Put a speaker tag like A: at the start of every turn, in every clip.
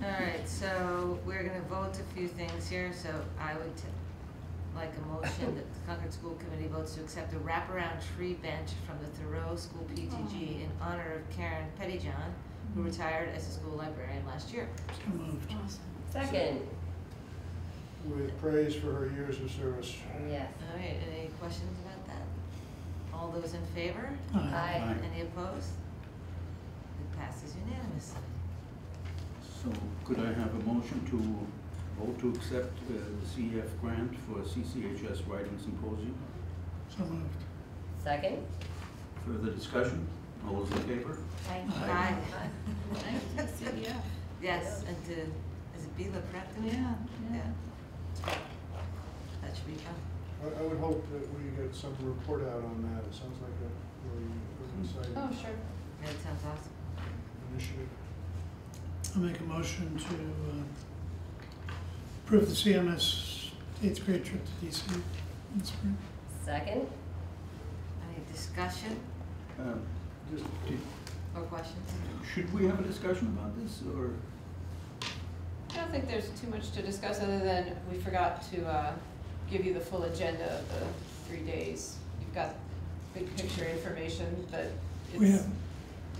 A: right, so we're gonna vote a few things here, so I would t- like a motion that the Concord School Committee votes to accept a wraparound tree bench from the Thoreau School PTG in honor of Karen Pettyjohn,
B: Mm-hmm.
A: who retired as a school librarian last year.
C: So moved.
D: Second,
C: With praise for her years of service.
D: yes.
A: All right, any questions about that? All those in favor?
D: Aye.
A: Any opposed? It passes unanimously.
E: So could I have a motion to vote to accept uh, the CEF grant for CCHS Writing Symposium?
C: So moved.
D: Second?
E: Further discussion? All those in favor?
A: Aye.
E: Aye.
F: Yeah,
A: Yes, and to, is it Bela Prepton?
F: yeah, yeah.
A: That should be fun.
C: I, I would hope that we get some report out on that. It sounds like a really
F: Oh,
C: exciting
F: sure.
A: That sounds awesome.
C: initiative.
B: I'll make a motion to uh, approve the CMS eighth grade trip to DC in spring.
D: Second?
A: Any discussion
E: Uh,
C: Just,
E: did-
A: or questions?
E: Should we have a discussion about this, or?
F: I don't think there's too much to discuss other than we forgot to uh, give you the full agenda of the three days. You've got big picture information, but
B: We
F: it's,
B: have,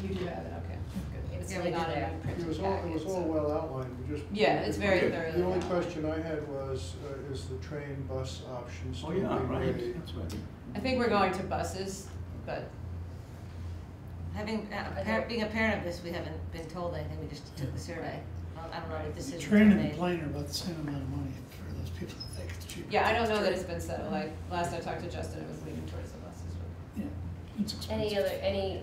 F: you do have it, okay, good. It's
A: Yeah,
F: not
A: we
F: in
A: did
F: a
A: that.
C: it
F: printed
C: was all, it
F: packet,
C: was all
F: so.
C: well outlined, we just.
F: Yeah, it's very
E: Okay.
F: thoroughly.
C: The only
F: outlined.
C: question I had was, uh, is the train bus option still
E: Oh,
C: being
E: yeah,
C: weighed?
E: right, that's right.
F: I think we're going to buses, but
A: Having, uh, a par- being a parent of this, we haven't been told anything, we just took the survey. Well, I don't know what
B: the
A: decisions were
B: train and
A: made.
B: the plane are about the same amount of money for those people that think it's cheaper.
F: yeah, I don't know that it's been settled. Like, last I talked to Justin, it was leaning towards the buses, but
B: Yeah, it's
D: Any
B: expensive.
D: other, any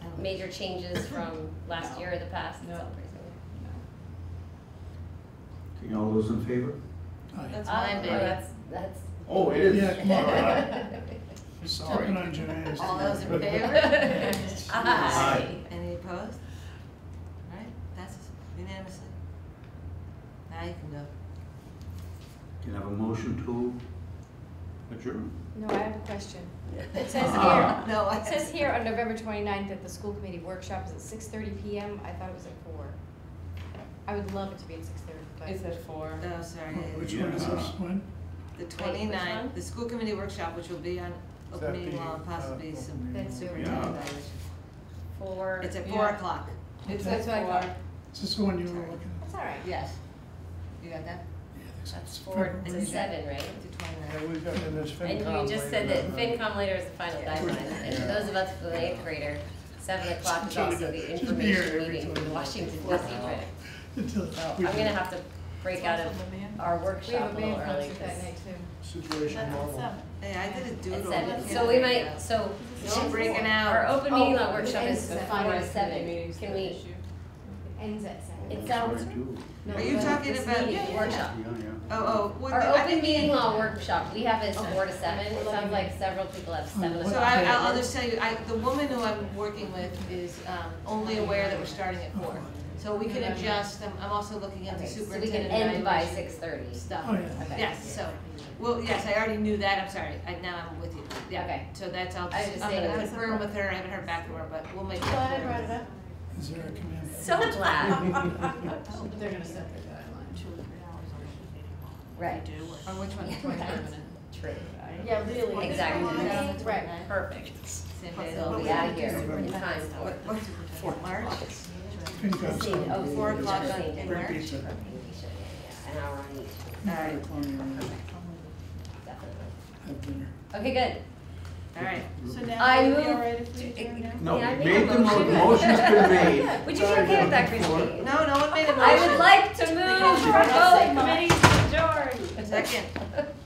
A: I don't know.
D: major changes from last year or the past? It's all
F: No.
D: pretty similar.
F: no.
E: Okay, all those in favor?
B: Aye.
F: That's
D: Ah,
F: mine,
D: oh,
F: baby.
D: That's, that's.
E: Oh, it is.
B: Yeah, come on.
E: All right.
B: Sorry. Stepping on Janae's.
A: All those in
C: But-
A: favor?
D: Aye.
A: Any opposed? All right, passes unanimously. Now you can go.
E: Can I have a motion to adjourn?
G: No, I have a question. It says
E: Ah.
G: here,
A: No, I.
G: it says here on November 29th that the school committee workshop is at six thirty PM. I thought it was at four. I would love it to be at six thirty, but.
F: It's at four.
A: Oh, sorry.
B: Which one is this one?
A: The
D: which one?
A: twenty-ninth, the school committee workshop, which will be on
C: Is that
A: open meeting
C: the,
A: law and
C: uh,
A: possibly
C: open
A: some.
C: meeting
G: That's
C: law?
G: over.
E: Yeah.
D: Four.
A: It's at
F: Yeah.
A: four o'clock.
F: It's
B: Okay.
F: at
G: That's what I
F: four.
G: thought.
B: Is this the one you were looking
G: That's all right.
A: Yes. You got that?
B: at? Yeah, I think so.
D: That's
B: It's
D: four
B: February.
D: to seven, right?
A: To twenty-ninth.
C: Yeah, we've got, and there's FinCom
D: And
C: later.
D: you just said that
C: but-
D: FinCom later is the final deadline, and for those of us with an eighth grader, seven o'clock is also
B: Just
D: the
B: be here
D: information
B: every
D: meeting
B: time.
D: in Washington DC.
B: Wow.
D: So
B: Until
D: I'm
B: we
D: gonna
B: do.
D: have to break out of our
G: We have
D: workshop
G: a
D: a little
G: band
D: early,
G: concert that
D: 'cause
G: night too.
C: Situation model.
A: Hey, I did a
D: at
A: doodle.
D: seven,
A: You
D: so
A: can't
D: we
A: do
D: might,
A: that.
D: so.
A: Don't break it out.
D: Our open meeting law
G: Oh,
D: workshop
G: it
D: is
G: is
D: the
G: at
D: four to
F: Finance committee
D: seven,
F: meeting's
D: can
F: the
D: we,
F: issue.
G: Ends at seven.
E: Sorry,
D: it sounds.
E: too.
D: no,
A: Are you
D: but
A: talking
D: this
A: about-
D: meeting,
A: yeah, yeah.
D: Workshop.
E: Yeah, yeah.
A: Oh, oh. would
D: Our
A: we- I
D: open
A: think we-
D: meeting law workshop, we have it
A: Okay.
D: four to seven, it sounds like several people have seven
B: what
A: So
D: o'clock.
A: I, I'll, I'll just tell you, I, the woman who I'm working with is, um, only aware that we're starting at four. So we can adjust, I'm, I'm also looking at the
D: Okay, so we can
A: superintendent
D: end by
A: evaluation
D: six thirty.
A: stuff.
B: Oh, yeah.
D: Okay.
A: Yes, so, well, yes, I already knew that, I'm sorry, I, now I'm with you, yeah.
D: Okay.
A: So that's, I'll,
D: I was
A: just-
D: just
A: I'm
D: saying
A: gonna
D: that's-
A: confirm with her, I haven't heard back from her, but we'll make that
F: Glad I
A: clear.
F: brought it up.
B: Is there a command?
D: So glad.
F: They're gonna set their guideline.
D: Right.
A: On which one?
D: Yeah,
A: Twenty-ninth.
D: True.
G: Yeah, really.
D: Exactly.
G: Right.
D: Perfect.
A: Same day.
D: So we'll be out of here in time for.
A: What, what's it, March?
B: FinCom's
D: Sixteen, oh,
B: coming.
A: Four o'clock on-
D: sixteen,
A: in
D: yeah,
A: March.
D: yeah, yeah, An hour on each,
B: Four o'clock on, uh,
D: definitely.
B: Have dinner.
D: Okay, good.
A: All right.
F: So
D: I
F: now would it be
D: move
F: all right if we adjourn now?
E: No,
D: May I make a
E: made the mo-
D: motion?
E: motion's been made.
D: Would you be okay with that, Christine?
A: No, no one made a motion.
D: I would like to move for both committees to adjourn.
A: Second.